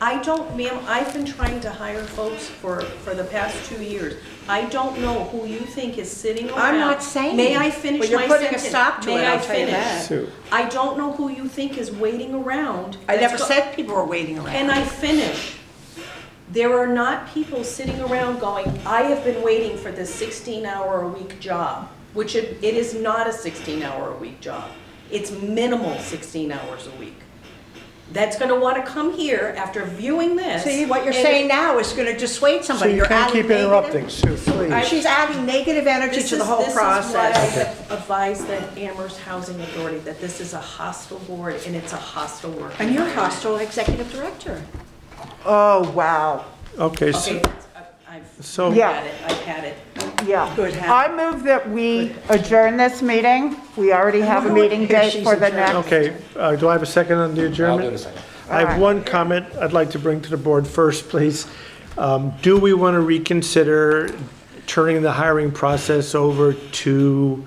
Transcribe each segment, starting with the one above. I don't, ma'am, I've been trying to hire folks for, for the past two years. I don't know who you think is sitting around. I'm not saying. May I finish my But sentence? you're putting a stop to it, May I'll I tell you finish? that. Sue, I don't know who you think is waiting around. I never That's go- said people were waiting Can around. I finish? There are not people sitting around going, I have been waiting for this 16-hour-a-week job, which it, it is not a 16-hour-a-week job. It's minimal 16 hours a week. That's gonna wanna come here after viewing this. See, what you're and- saying now is gonna dissuade Sue, somebody. you You're can't adding keep negative- interrupting, Sue, please. She's adding negative energy This to the is- whole this is why process. I advise that Amherst Housing Authority, that this is a hostile board and it's a hostile work. And you're environment. hostile executive director. Oh, wow, Okay, Okay, so, that's- I've, so- I've Yeah. had it, I've had it. yeah. Good hat. I move that we adjourn this meeting. We already have a meeting date for the next. okay, uh, do I have a second on the I'll adjournment? do the second. I have one comment I'd like to bring to the board first, please. Um, Do we want to reconsider turning the hiring process over to,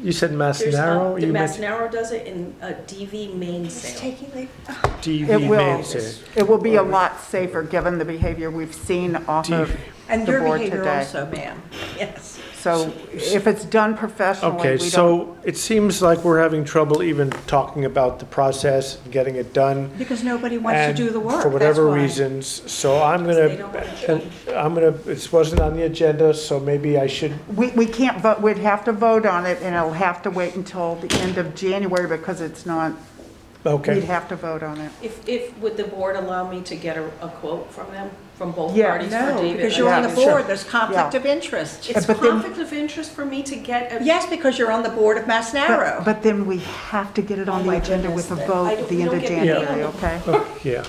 you said There's not, Masnarro? the You meant Masnarro does it in a DV main It's sale. taking the, It DV will, Mansour. it will be a lot safer, given the behavior we've seen off of and the your board behavior today. also, ma'am. Yes. So if it's done professionally, Okay, we don't, so it seems like we're having trouble even talking about the process, and getting it done. Because nobody wants to And do the work. For that's whatever why. reasons, so I'm They don't wanna gonna, I'm gonna, this wasn't on the agenda, so maybe I should, we, we can't vote, we'd have to vote on it, and it'll have to wait until the end of January, because it's not, we'd okay. have to vote on it. If, if, would the board allow me to get a, a quote from them, from both Yeah, parties for No, David? because you're on the Yeah, sure. board, there's conflict Yeah. of interest. It's But then- conflict of interest for me to get a. Yes, because you're on the board of Mass But, Narrow. but then we have to get it Oh on my the agenda goodness, with a that- vote I at don't- the we end don't of get paid January, on the- okay? Oh, Yeah,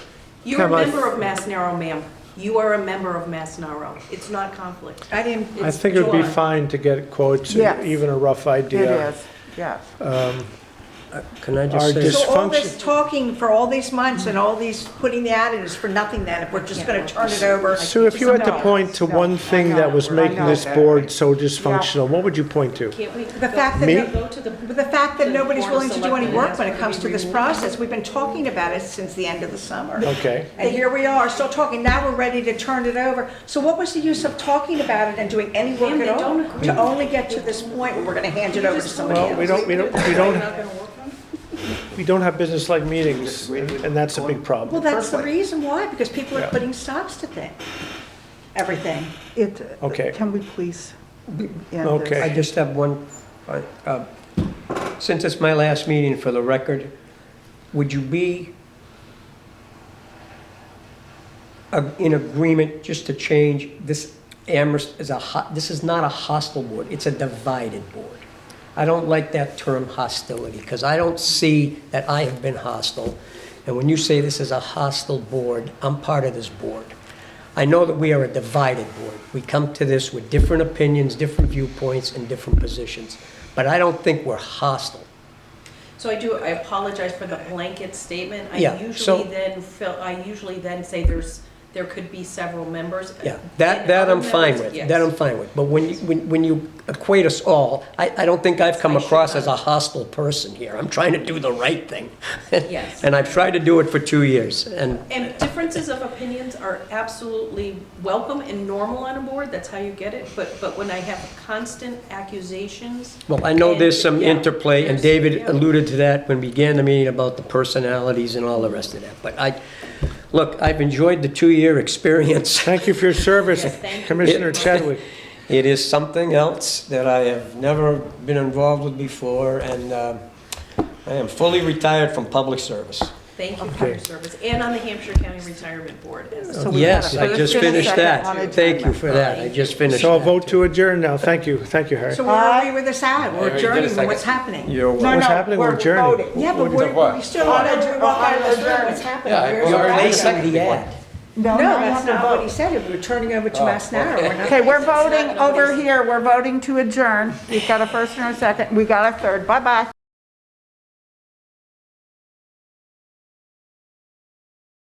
You're a Come on. member of Mass Narrow, ma'am. You are a member of Mass Narrow. It's not conflict. I didn't, I It's think it would be joy. fine to get quotes, Yes. even a rough It idea. is, yes. Can Our I just say, so all this Dysfunction- talking for all these months and all these, putting the ad in is for nothing then, if we're just gonna turn it over. Sue, if you had to No, point to no, I one thing know, that was I making know this that. board so dysfunctional, what would you point to? Can't we? The fact that, Me? no- Go to the. but the fact that the nobody's Board of willing to do any Selectmen, work that's when it gonna comes be to this removed. process, we've been talking about it since the end of the summer. Okay, And here we are, still talking, now we're ready to turn it over. So what was the use of talking about it and doing any work Ma'am, they at all? don't agree. To only get to this point where we're gonna hand it over to somebody else? well, we don't, we don't, we don't, we don't have business-like meetings, and and that's a big Well, problem. that's the reason why, because people are Yeah. putting stops to things, everything. It, Okay. can we please end this? Okay. I just have one, uh, uh, since it's my last meeting for the record, would you be a- in agreement just to change this Amherst is a, ho- this is not a hostile board, it's a divided board. I don't like that term hostility, because I don't see that I have been hostile. And when you say this is a hostile board, I'm part of this board. I know that we are a divided board. We come to this with different opinions, different viewpoints, and different positions. But I don't think we're hostile. So I do, I apologize for the blanket statement. Yeah, I so- usually then fill, I usually then say there's, there could be several members. Yeah, And that, that I'm other fine members- with, yes. that I'm fine with. But when you, when, when you equate us all, I, I don't think I've come I should across as a not. hostile person here. I'm trying to do the right thing. Yes. And I've tried to do it for two years, and And differences of opinions are absolutely welcome and normal on a board, that's how you get it, but, but when I have constant accusations. Well, I know there's some Yeah. interplay, and There's- David yeah. alluded to that when we began the meeting about the personalities and all the rest of that. But I, look, I've enjoyed the two-year experience. Thank you for your service, Yes, thank you. Commissioner Chadwick. It is something else that I have never been involved with before, and uh, I am fully retired from public service. Thank you for your service, and on the Hampshire County Retirement Board. as- So we had a Yes, I first just and a finished second on that. Thank you adjournment. for that. I just finished So I'll that, vote too. to adjourn now, thank you, thank you, Harry. So where are we with this ad? We're Alright, you did a adjourning, second. what's happening? You're No, welcome. What's no, happening? We're we're adjourning. voting. Yeah, but What- we're, we still what? want to walk out of this room, what's happening? Yeah, I- Where's well, our I already action? Second seconded the ad. No, No, now you that's have to not what he vote. said, we're turning over to Mass Narrow. We're not- Okay, we're voting not over nobody's- here, we're voting to adjourn. We've got a first and a second, we got a third, bye-bye.